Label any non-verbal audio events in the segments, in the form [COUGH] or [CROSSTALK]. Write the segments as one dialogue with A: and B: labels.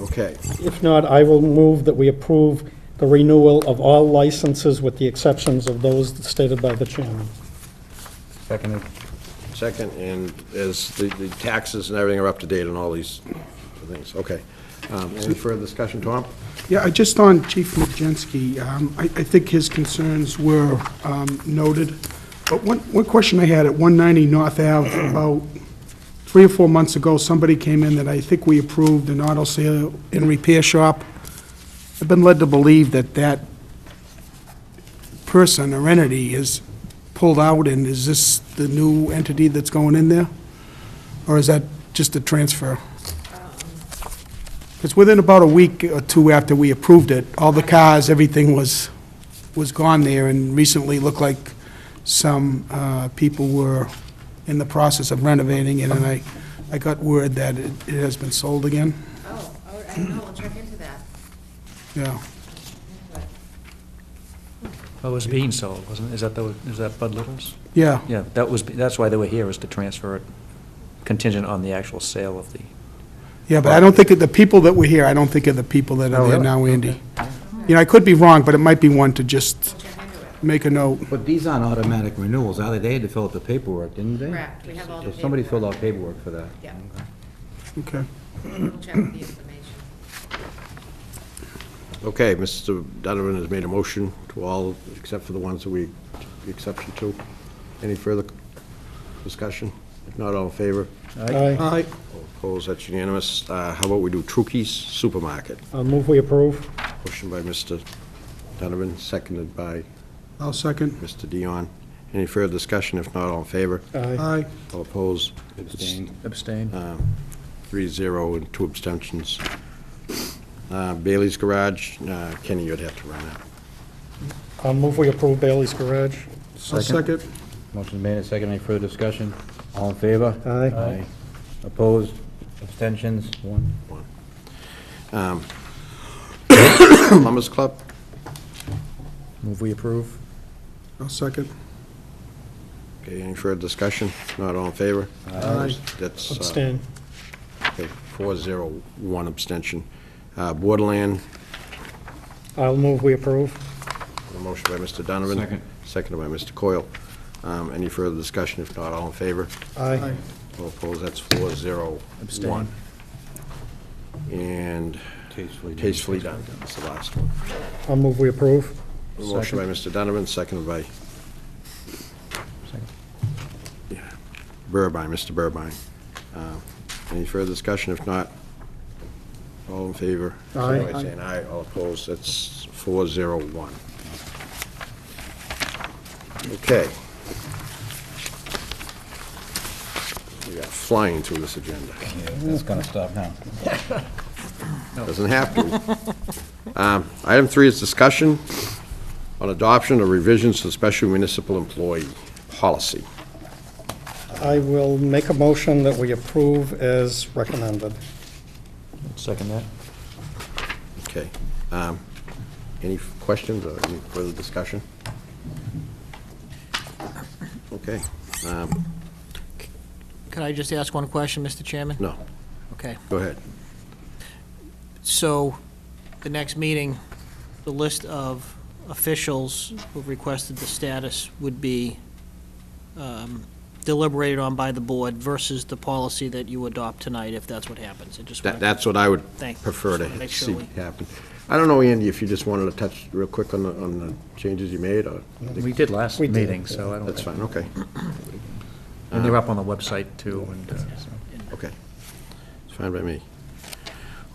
A: Okay,
B: If not, I will move that we approve the renewal of all licenses with the exceptions of those stated by the chairman.
C: Seconded.
A: second, and as the, the taxes and everything are up to date on all these things, okay. Um, Any further discussion, Tom?
D: Yeah, I just on Chief Majensky, um, I I think his concerns were um, noted, but one one question I had at 190 North Ave, about three or four months ago, somebody came in that I think we approved, an auto sale and repair shop. I've been led to believe that that person or entity is pulled out, and is this the new entity that's going in there? Or is that just a transfer? Because within about a week or two after we approved it, all the cars, everything was, was gone there, and recently looked like some uh, people were in the process of renovating it, and I, I got word that it it has been sold again.
E: Oh, all right, I don't know, we'll check into that.
D: Yeah,
F: Well, Oh, it was being sold, wasn't it? Is that, the- is that Bud Little's?
D: yeah.
F: Yeah, that was, that's why they were here, was to transfer it contingent on the actual sale of the,
D: Yeah, but I don't think, of the people that were here, I don't think of the people that are there now, Andy. You know, I could be wrong, but it might be one to just make a note.
C: But these aren't automatic renewals, are they? They had to fill out the paperwork, didn't they?
E: Correct, we have all the
C: So somebody filled out
E: paperwork.
C: paperwork for that.
E: Yeah.
C: Okay.
D: Okay.
E: We'll check with the information.
A: Okay, Mr. Donovan has made a motion to all, except for the ones that we, the exception to. Any further discussion? If not, all in favor?
B: Aye.
A: Aye. Opposed, that's unanimous. Uh, How about we do Trukey's Supermarket?
B: I'll move we approve.
A: Motion by Mr. Donovan, seconded by
D: I'll second.
A: Mr. Dion. Any further discussion? If not, all in favor?
B: Aye.
D: Aye.
A: All opposed?
C: Abstain.
F: abstain.
A: Uh, Three zero and two abstentions. Uh, Bailey's Garage, uh, Kenny, you'd have to run that.
B: I'll move we approve Bailey's Garage.
D: I'll
C: Second.
D: second.
C: Motion made and seconded. Any further discussion? All in favor?
B: Aye.
C: Opposed? Abstentions? One.
A: Plumbers Club,
C: Move we approve?
D: I'll second.
A: okay, any further discussion? If Not all in favor?
D: Aye.
A: That's, uh,
B: Abstain.
A: okay, four zero, one abstention. Uh, Borderland,
B: I'll move we approve.
A: a motion by Mr. Donovan.
C: Second.
A: Seconded by Mr. Coyle. Um, Any further discussion? If not, all in favor?
B: Aye.
A: All opposed, that's four zero, one. And
C: Tastefully done.
A: tastefully done, that's the last one.
B: I'll move we approve.
A: A Motion by Mr. Donovan, seconded by
C: Second.
A: Burbine, Mr. Burbine. Uh, Any further discussion? If not, all in favor?
B: Aye.
A: Signify by saying aye, all opposed, that's four zero one. Okay. We are flying through this agenda.
C: Yeah, That's gonna stop now.
A: Doesn't have
B: [LAUGHS]
A: to. Um, Item three is discussion on adoption of revisions to special municipal employee policy.
B: I will make a motion that we approve as recommended.
F: Second that.
A: Okay. Um, Any questions or any further discussion? Okay. um,
G: Could I just ask one question, Mr. Chairman?
A: No,
G: Okay.
A: go ahead.
G: So, the next meeting, the list of officials who requested the status would be um, deliberated on by the board versus the policy that you adopt tonight, if that's what happens. I just
A: That-
G: wanted-
A: That's what I would
G: Thank you.
A: prefer
G: Just wanna
A: to
G: make
A: see
G: sure we-
A: happen. I don't know, Andy, if you just wanted to touch real quick on the, on the changes you made, or?
F: We did last
B: We did.
F: meeting, so I don't
A: That's
F: think,
A: fine, Uh, okay,
F: and they're up on the website too, and uh, so.
A: okay. It's fine by me.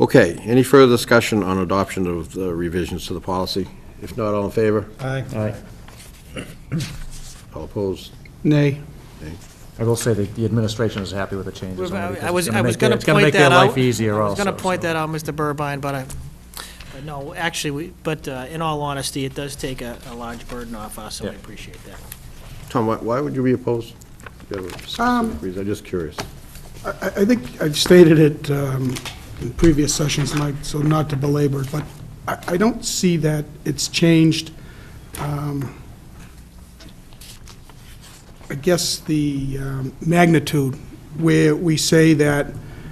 A: Okay, any further discussion on adoption of the revisions to the policy? If not, all in favor?
B: Aye.
A: All opposed?
D: Nay.
F: I will say that the administration is happy with the changes. only because
G: I
F: it's
G: was,
F: gonna
G: I was
F: make their-
G: gonna
F: It's gonna
G: point
F: make their
G: that out.
F: life easier
G: I was
F: also.
G: gonna point
F: so.
G: that out, Mr. Burbine, but I, but no, actually, we, but uh, in all honesty, it does take a, a large burden off us, and I
F: Yeah.
G: appreciate that.
A: Tom, why- why would you be opposed? Do you have a
D: Um,
A: specific reason? I'm just curious.
D: I, I think I've stated it um, in previous sessions, Mike, so not to belabor, it, but I, I don't see that it's changed. um, I guess the um, magnitude, where we say that